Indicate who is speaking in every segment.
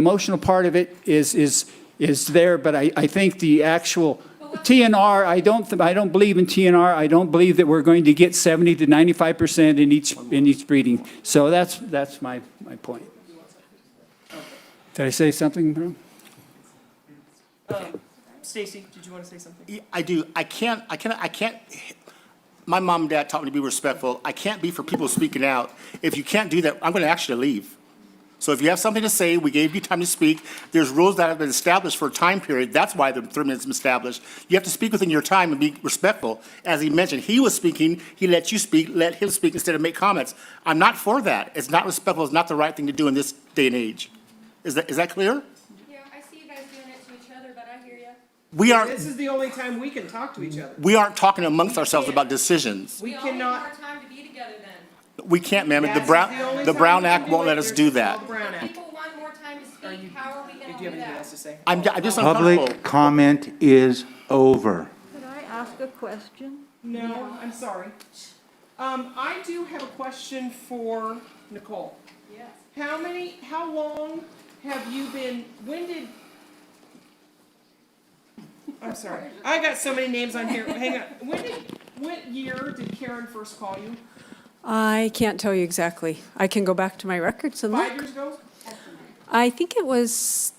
Speaker 1: Emotional part of it is, is, is there, but I, I think the actual TNR, I don't, th- I don't believe in TNR. I don't believe that we're going to get 70 to 95% in each, in each breeding. So that's, that's my, my point. Did I say something wrong?
Speaker 2: Um, Stacy, did you want to say something?
Speaker 3: Yeah, I do. I can't, I can't, I can't, my mom and dad taught me to be respectful. I can't be for people speaking out. If you can't do that, I'm going to ask you to leave. So if you have something to say, we gave you time to speak. There's rules that have been established for a time period. That's why the three minutes is established. You have to speak within your time and be respectful. As he mentioned, he was speaking, he let you speak, let him speak instead of make comments. I'm not for that. It's not respectful, it's not the right thing to do in this day and age. Is that, is that clear?
Speaker 4: Yeah, I see you guys doing it to each other, but I hear ya.
Speaker 3: We aren't,
Speaker 2: This is the only time we can talk to each other.
Speaker 3: we aren't talking amongst ourselves about decisions.
Speaker 2: We
Speaker 4: all need more
Speaker 2: cannot.
Speaker 4: time to be together then.
Speaker 3: We can't, ma'am. The
Speaker 2: That's
Speaker 3: Brown,
Speaker 2: only
Speaker 3: the
Speaker 2: time
Speaker 3: Brown
Speaker 2: we can
Speaker 3: Act won't
Speaker 2: it.
Speaker 3: let us
Speaker 2: There's
Speaker 3: do
Speaker 2: no
Speaker 3: that.
Speaker 2: Brown Act.
Speaker 4: People want more time to
Speaker 2: you-
Speaker 4: speak, how are we
Speaker 2: Did
Speaker 4: gonna
Speaker 2: you have
Speaker 4: do
Speaker 2: anything else to
Speaker 4: that?
Speaker 2: say?
Speaker 3: I'm, ju- I'm just uncomfortable.
Speaker 5: Public comment is over.
Speaker 6: Could I ask a question?
Speaker 2: No, I'm sorry. Um, I do have a question for Nicole.
Speaker 4: Yes.
Speaker 2: How many, how long have you been, when did? I'm sorry, I got so many names on here, hang on. When did, what year did Karen first call you?
Speaker 7: I can't tell you exactly. I can go back to my records and
Speaker 2: Five
Speaker 7: look.
Speaker 2: years ago?
Speaker 7: I think it was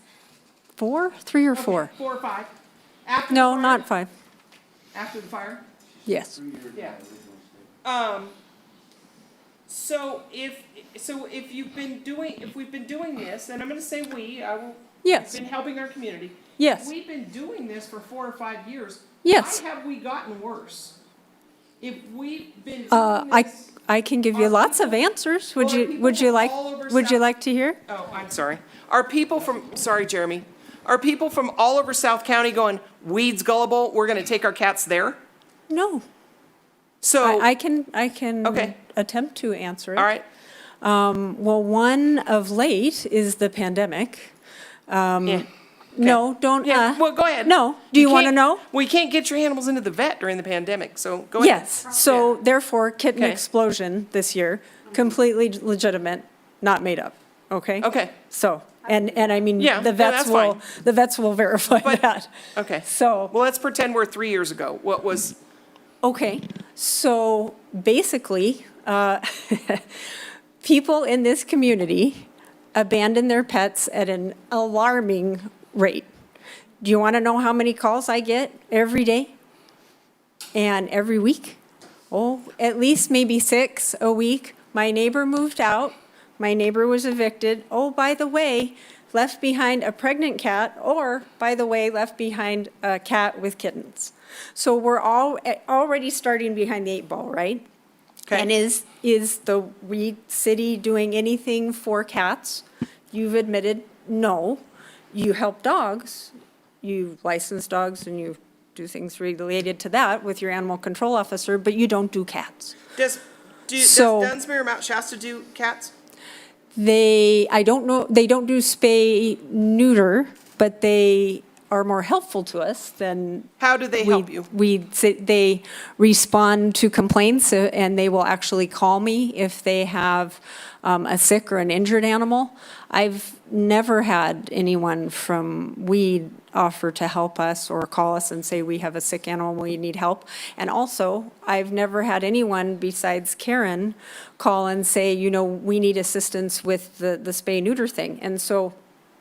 Speaker 7: four, three or
Speaker 2: Okay,
Speaker 7: four.
Speaker 2: Four or five? After the
Speaker 7: No,
Speaker 2: fire?
Speaker 7: not five.
Speaker 2: After the fire?
Speaker 7: Yes.
Speaker 2: Yeah. Um, so if, so if you've been doing, if we've been doing this, and I'm gonna say we, I will.
Speaker 7: Yes.
Speaker 2: Been helping our community.
Speaker 7: Yes.
Speaker 2: We've been doing this for four or five years.
Speaker 7: Yes.
Speaker 2: Why have we gotten worse? If we've been
Speaker 7: Uh,
Speaker 2: doing
Speaker 7: I,
Speaker 2: this.
Speaker 7: I can give you
Speaker 2: Are
Speaker 7: lots of
Speaker 2: people-
Speaker 7: answers. Would
Speaker 2: are
Speaker 7: you,
Speaker 2: people
Speaker 7: would you
Speaker 2: from
Speaker 7: like,
Speaker 2: all over
Speaker 7: would you
Speaker 2: South-
Speaker 7: like to hear?
Speaker 2: Oh, I'm sorry. Are people from, sorry, Jeremy, are people from all over South County going, weeds gullible, we're gonna take our cats there?
Speaker 7: No.
Speaker 2: So,
Speaker 7: I, I can, I can
Speaker 2: Oh. Okay.
Speaker 7: attempt to answer it. Um,
Speaker 2: all right,
Speaker 7: Well, one of late is the pandemic. Um,
Speaker 2: yeah.
Speaker 7: No, don't,
Speaker 2: Yeah,
Speaker 7: uh,
Speaker 2: well, go ahead.
Speaker 7: No. Do you want to
Speaker 2: can't-
Speaker 7: know?
Speaker 2: Well, you can't get your animals into the vet during the pandemic, so go ahead.
Speaker 7: Yes, so therefore kitten
Speaker 2: Okay.
Speaker 7: explosion this year, completely legitimate, not made up, okay?
Speaker 2: Okay.
Speaker 7: So, and, and I mean,
Speaker 2: Yeah,
Speaker 7: the
Speaker 2: no,
Speaker 7: vets
Speaker 2: that's
Speaker 7: will,
Speaker 2: fine.
Speaker 7: the vets will verify
Speaker 2: But-
Speaker 7: that.
Speaker 2: Okay. Well,
Speaker 7: So,
Speaker 2: let's pretend we're three years ago. What was,
Speaker 7: okay, so basically, uh, people in this community abandon their pets at an alarming rate. Do you want to know how many calls I get every day? And every week? Oh, at least maybe six a week. My neighbor moved out. My neighbor was evicted. Oh, by the way, left behind a pregnant cat, or by the way, left behind a cat with kittens. So we're all eh, already starting behind the eight ball, right?
Speaker 2: Okay.
Speaker 7: And is, is the Weed City doing anything for cats? You've admitted, no. You help dogs, you license dogs and you do things related to that with your animal control officer, but you don't do cats.
Speaker 2: does, do, does
Speaker 7: So-
Speaker 2: Dunsmere or Mount Shasta do cats?
Speaker 7: They, I don't know, they don't do spay neuter, but they are more helpful to us than
Speaker 2: How do they
Speaker 7: we-
Speaker 2: help you?
Speaker 7: We, say- they respond to complaints, uh, and they will actually call me if they have um, a sick or an injured animal. I've never had anyone from Weed offer to help us or call us and say, we have a sick animal, we need help. And also, I've never had anyone besides Karen call and say, you know, we need assistance with the, the spay neuter thing. And so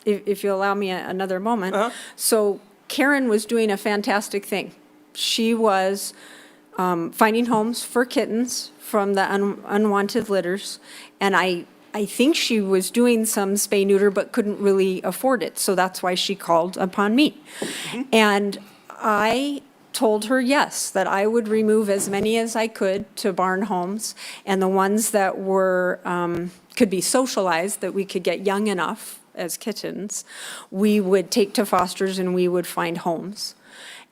Speaker 7: if, if you allow me a- another moment. So Karen was doing a fantastic thing. She was um, finding homes for kittens from the un- unwanted litters, and I, I think she was doing some spay neuter but couldn't really afford it, so that's why she called upon me. And I told her yes, that I would remove as many as I could to barn homes, and the ones that were, um, could be socialized, that we could get young enough as kittens, we would take to fosters and we would find homes.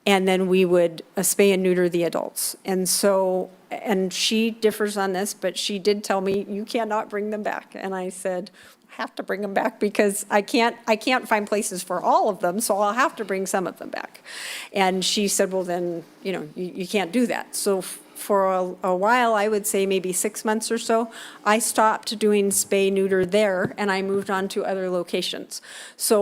Speaker 7: And then we would uh, spay and neuter the adults. And so, and she differs on this, but she did tell me, you cannot bring them back. And I said, "I have to bring them back because I can't, I can't find places for all of them, so I'll have to bring some of them back. And she said, well, then, you know, you, you can't do that. So f- for a- a while, I would say maybe six months or so, I stopped doing spay neuter there and I moved on to other locations. So